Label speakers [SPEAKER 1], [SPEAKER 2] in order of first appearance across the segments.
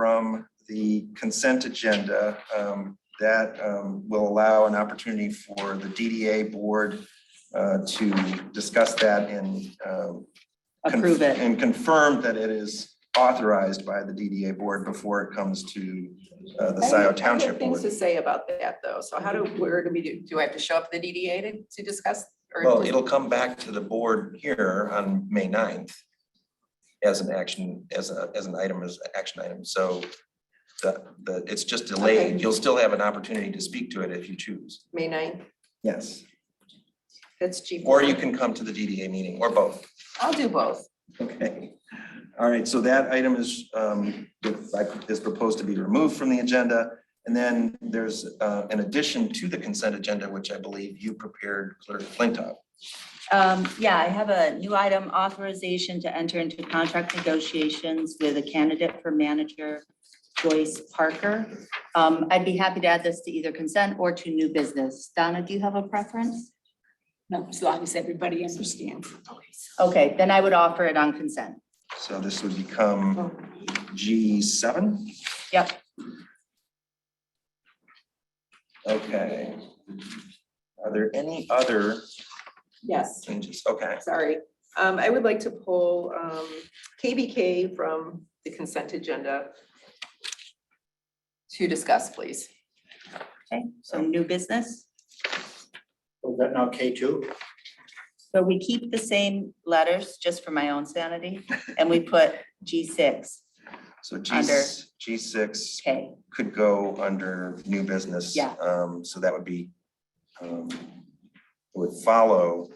[SPEAKER 1] from the consent agenda um, that um, will allow an opportunity for the DDA board uh, to discuss that and um, conf-
[SPEAKER 2] approve it.
[SPEAKER 1] And confirm that it is authorized by the DDA board before it comes to uh, the
[SPEAKER 3] I have- I
[SPEAKER 1] Scioto
[SPEAKER 3] have
[SPEAKER 1] Township
[SPEAKER 3] Things
[SPEAKER 1] board.
[SPEAKER 3] to say about that, though. So how do, where do we do, do I have to show up at the DDA to, to discuss? or
[SPEAKER 1] Well,
[SPEAKER 3] just-
[SPEAKER 1] it'll come back to the board here on May 9th as an action, as a, as an item, as an action item. So the, the, it's just
[SPEAKER 3] Okay.
[SPEAKER 1] delayed. You'll still have an opportunity to speak to it if you choose.
[SPEAKER 3] May ninth,
[SPEAKER 1] Yes.
[SPEAKER 3] that's cheap.
[SPEAKER 1] Or you can come to the DDA meeting or both.
[SPEAKER 3] I'll do both.
[SPEAKER 1] Okay. All right, so that item is, um, is proposed to be removed from the agenda. And then there's, uh, an addition to the consent agenda, which I believe you prepared, Clerk Flintoff.
[SPEAKER 2] Um, yeah, I have a new item authorization to enter into contract negotiations with a candidate for manager, Joyce Parker. Um, I'd be happy to add this to either consent or to new business. Donna, do you have a preference?
[SPEAKER 4] No, as long as everybody understands.
[SPEAKER 2] Okay, then I would offer it on consent.
[SPEAKER 1] So this would become G seven?
[SPEAKER 2] Yep.
[SPEAKER 1] Okay. Are there any other
[SPEAKER 3] Yes,
[SPEAKER 1] changes? Okay,
[SPEAKER 3] sorry. Um, I would like to pull, um, KBK from the consent agenda to discuss, please.
[SPEAKER 2] Okay, so new business.
[SPEAKER 5] Is that now K two?
[SPEAKER 2] So we keep the same letters just for my own sanity and we put G six
[SPEAKER 1] so G,
[SPEAKER 2] Under.
[SPEAKER 1] G six
[SPEAKER 2] K.
[SPEAKER 1] could go under new business.
[SPEAKER 2] Yeah.
[SPEAKER 1] Um, so that would be, um, would follow.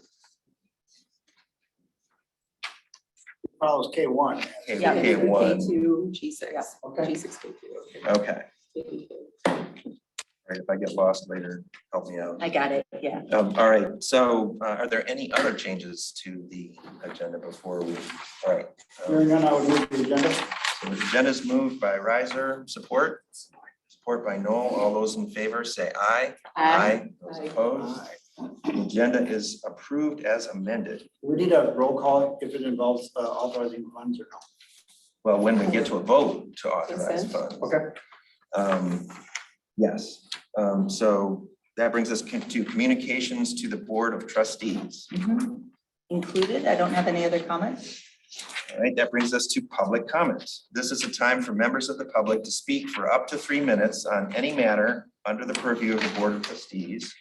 [SPEAKER 5] Follows K one.
[SPEAKER 1] K-
[SPEAKER 2] Yeah.
[SPEAKER 1] K one,
[SPEAKER 3] K two, G six,
[SPEAKER 5] Okay.
[SPEAKER 3] G six, K two.
[SPEAKER 1] okay,
[SPEAKER 3] okay.
[SPEAKER 1] All right, if I get lost later, help me out.
[SPEAKER 2] I got it, yeah.
[SPEAKER 1] Um, all right, so uh, are there any other changes to the agenda before we, all right? um,
[SPEAKER 5] Hearing none, I would move the agenda.
[SPEAKER 1] So the agenda is moved by riser, support, support by Noel. All those in favor say aye. Those
[SPEAKER 3] Aye.
[SPEAKER 1] opposed? The Agenda is approved as amended.
[SPEAKER 5] We need a roll call if it involves uh, authorizing funds or not.
[SPEAKER 1] Well, when we get to a vote to authorize
[SPEAKER 3] Consent.
[SPEAKER 1] funds.
[SPEAKER 5] Okay.
[SPEAKER 1] Um, Yes, um, so that brings us to communications to the Board of Trustees.
[SPEAKER 2] Mhm. Included, I don't have any other comments.
[SPEAKER 1] All right, that brings us to public comments. This is a time for members of the public to speak for up to three minutes on any matter under the purview of the Board of Trustees.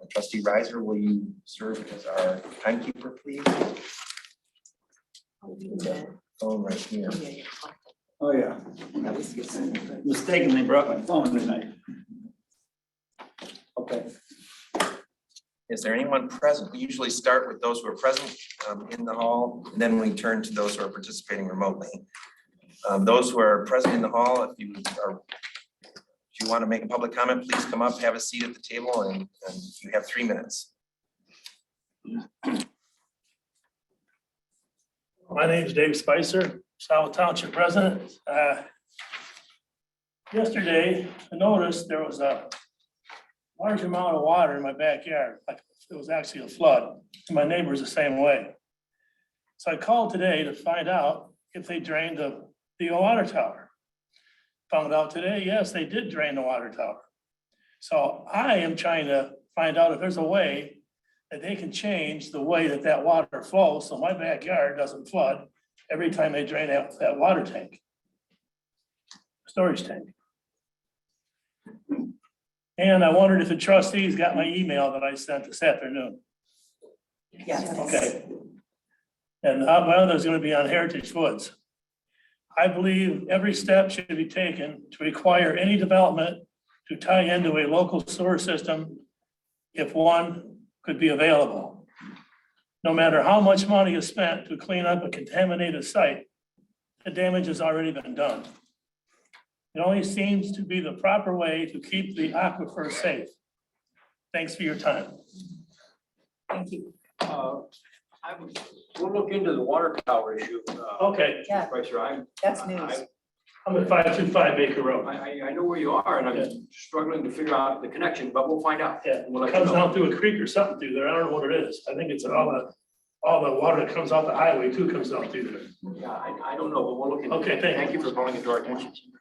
[SPEAKER 1] Uh, Trustee Riser, will you serve as our timekeeper, please? Phone right here.
[SPEAKER 3] Yeah, yeah.
[SPEAKER 5] Oh, yeah.
[SPEAKER 3] That was your son.
[SPEAKER 5] Mistakenly brought my phone tonight. Okay,
[SPEAKER 1] Is there anyone present? We usually start with those who are present um, in the hall, and then we turn to those who are participating remotely. Um, Those who are present in the hall, if you are, if you want to make a public comment, please come up, have a seat at the table, and and you have three minutes.
[SPEAKER 6] My name's Dave Spicer, South Township resident. Uh, Yesterday, I noticed there was a large amount of water in my backyard. Like, It was actually a flood. and My neighbor's the same way. So I called today to find out if they drained the, the water tower. Found out today, yes, they did drain the water tower. So I am trying to find out if there's a way that they can change the way that that water flows, so my backyard doesn't flood every time they drain out that water tank. Storage tank. And I wondered if the trustees got my email that I sent this afternoon.
[SPEAKER 2] Yes.
[SPEAKER 6] Okay. And uh, my other's gonna be on Heritage Woods. I believe every step should be taken to require any development to tie into a local sewer system if one could be available. No matter how much money is spent to clean up a contaminated site, the damage has already been done. It only seems to be the proper way to keep the aquifer safe. Thanks for your time.
[SPEAKER 7] Uh, I would, we'll look into the water tower issue. uh,
[SPEAKER 6] Okay,
[SPEAKER 2] Oh, Yeah,
[SPEAKER 7] Professor, I,
[SPEAKER 2] that's news.
[SPEAKER 7] I,
[SPEAKER 6] I'm at five two five Baker
[SPEAKER 7] I,
[SPEAKER 6] Road.
[SPEAKER 7] I- I know where you are and I'm struggling to figure out the connection, but we'll find out.
[SPEAKER 6] Yeah,
[SPEAKER 7] We'll let you
[SPEAKER 6] Comes
[SPEAKER 7] know.
[SPEAKER 6] down through a creek or something through there. I don't know what it is. I think it's all a all the water that comes off the highway too comes out through there.
[SPEAKER 7] Yeah, I, I don't know, but we'll look into it.
[SPEAKER 6] Okay, thank you.
[SPEAKER 7] Thank you for calling it to our attention.